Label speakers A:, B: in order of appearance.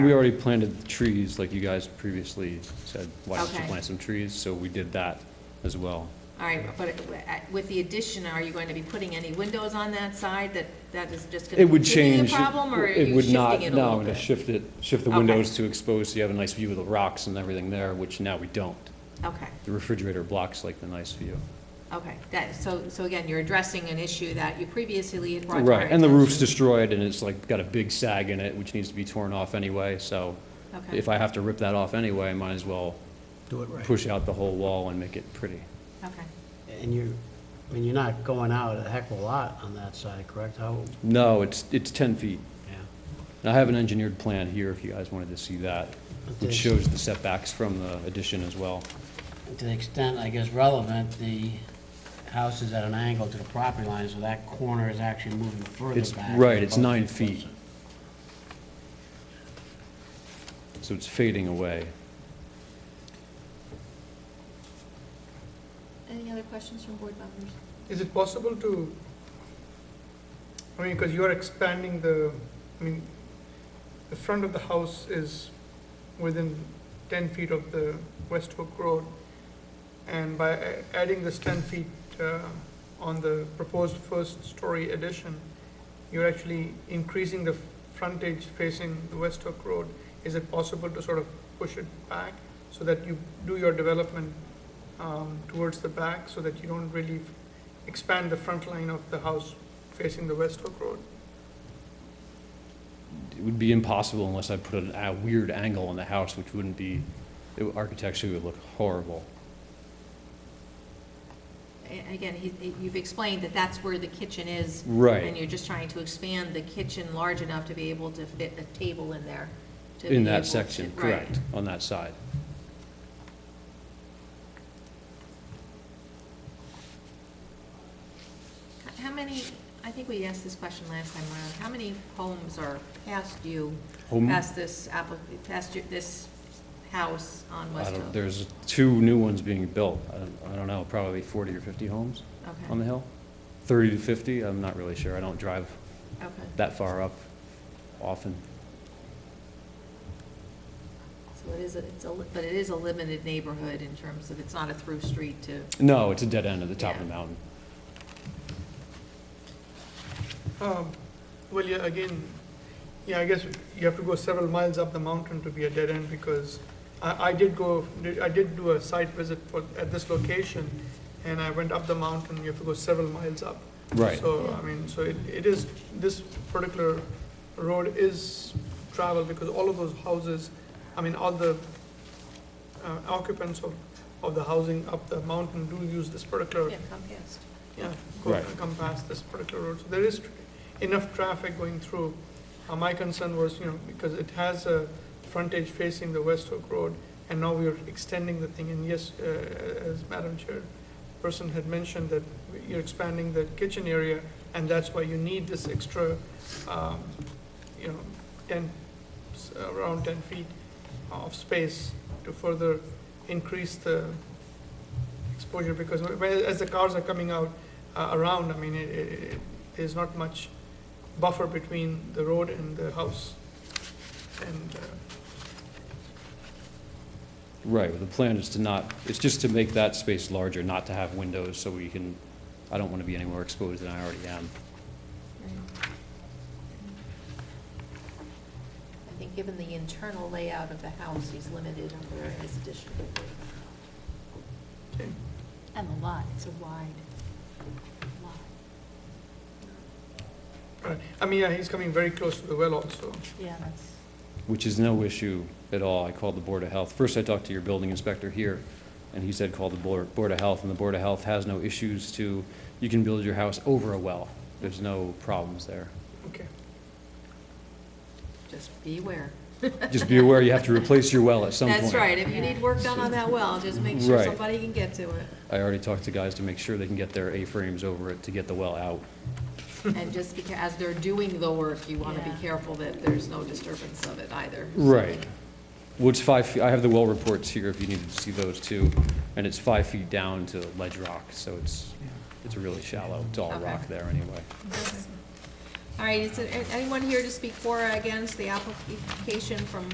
A: We already planted trees, like you guys previously said, why don't you
B: Okay.
A: plant some trees? So we did that as well.
B: All right, but uh, with the addition, are you going to be putting any windows on that side that, that is just
A: It
B: going to
A: would
B: continue the
A: change.
B: problem, or are
A: it
B: you
A: would
B: shifting
A: not.
B: it a
A: No,
B: little
A: to
B: bit?
A: shift it, shift the
B: Okay.
A: windows to expose, so you have a nice view of the rocks and everything there, which now we don't.
B: Okay,
A: The refrigerator blocks like the nice view.
B: okay, that, so, so again, you're addressing an issue that you previously had brought to our
A: Right, and the roof's
B: attention.
A: destroyed and it's like got a big sag in it, which needs to be torn off anyway, so
B: Okay.
A: if I have to rip that off anyway, I might as well
C: Do it right.
A: push out the whole wall and make it pretty.
B: Okay,
C: And you, I mean, you're not going out a heck of a lot on that side, correct? How,
A: No, it's, it's ten feet.
C: yeah.
A: And I have an engineered plan here if you guys wanted to see that,
C: Okay.
A: which shows the setbacks from the addition as well.
C: To the extent, I guess, relevant, the house is at an angle to the property line, so that corner is actually moving further
A: It's-
C: back.
A: right, it's nine feet. So it's fading away.
D: Any other questions from board members?
E: Is it possible to, I mean, because you are expanding the, I mean, the front of the house is within 10 feet of the West Hook Road, and by a- adding this 10 feet uh, on the proposed first-story addition, you're actually increasing the frontage facing the West Hook Road. Is it possible to sort of push it back so that you do your development um, towards the back so that you don't really expand the front line of the house facing the West Hook Road.
A: It would be impossible unless I put an- a weird angle on the house, which wouldn't be, it would- architecturally would look horrible.
B: A- again, he- he- you've explained that that's where the kitchen is.
A: Right.
B: And you're just trying to expand the kitchen large enough to be able to fit a table in there. to
A: In
B: be able
A: that
B: to-
A: section,
B: right.
A: correct, on that side.
B: How many, I think we asked this question last time around, how many homes are past you,
A: Home-
B: past this applic, past you- this house on
A: I
B: West
A: don't,
B: Hill?
A: there's two new ones being built. I don't- I don't know, probably 40 or 50 homes on
B: Okay,
A: the hill? 30 to 50, I'm not really sure. I don't drive
B: okay.
A: that far up often.
B: So it is, a- it's a, li- but it is a limited neighborhood in terms of, it's not a through street to,
A: No, it's a dead end at the top of the
B: Yeah.
A: mountain.
E: Um, Well, yeah, again, yeah, I guess you have to go several miles up the mountain to be a dead end because I, I did go, I did do a site visit for, at this location and I went up the mountain, you have to go several miles up.
A: Right.
E: So, I mean, so it, it is, this particular road is traveled because all of those houses, I mean, all the uh, occupants of, of the housing up the mountain do use this particular
B: yeah, come past.
E: yeah, go,
A: Right.
E: come past this particular road. So there is tr- enough traffic going through. Uh, My concern was, you know, because it has a frontage facing the West Hook Road, and now we are extending the thing, and yes, uh, as Madam Chairperson had mentioned, that you're expanding the kitchen area, and that's why you need this extra, um, you know, ten, s- around ten feet of space to further increase the exposure, because when- as the cars are coming out uh, around, I mean, it- it, it- there's not much buffer between the road and the house. And, uh,
A: Right, the plan is to not, it's just to make that space larger, not to have windows, so we can, I don't want to be any more exposed than I already am.
B: I think given the internal layout of the house, he's limited under his addition.
E: okay.
B: And the lot, it's a wide lot.
E: Right. I mean, yeah, he's coming very close to the well also.
B: Yeah, that's.
A: which is no issue at all. I called the Board of Health. First, I talked to your building inspector here, and he said, call the Board, Board of Health, and the Board of Health has no issues to, you can build your house over a well. There's no problems there.
E: Okay.
B: Just be aware.
A: Just be aware, you have to replace your well at some point.
B: That's right, if you need work done on that well, just make sure
A: Right.
B: somebody can get to it.
A: I already talked to guys to make sure they can get their A-frames over it to get the well out.
B: And just because, as they're doing the work, you want to be
D: Yeah.
B: careful that there's no disturbance of it either.
A: Right. Well, it's five, feet- I have the well reports here if you needed to see those too, and it's five feet down to ledge rock, so it's, it's really shallow. It's all
B: Okay.
A: rock there anyway.
B: All right, is there anyone here to speak for or against the application from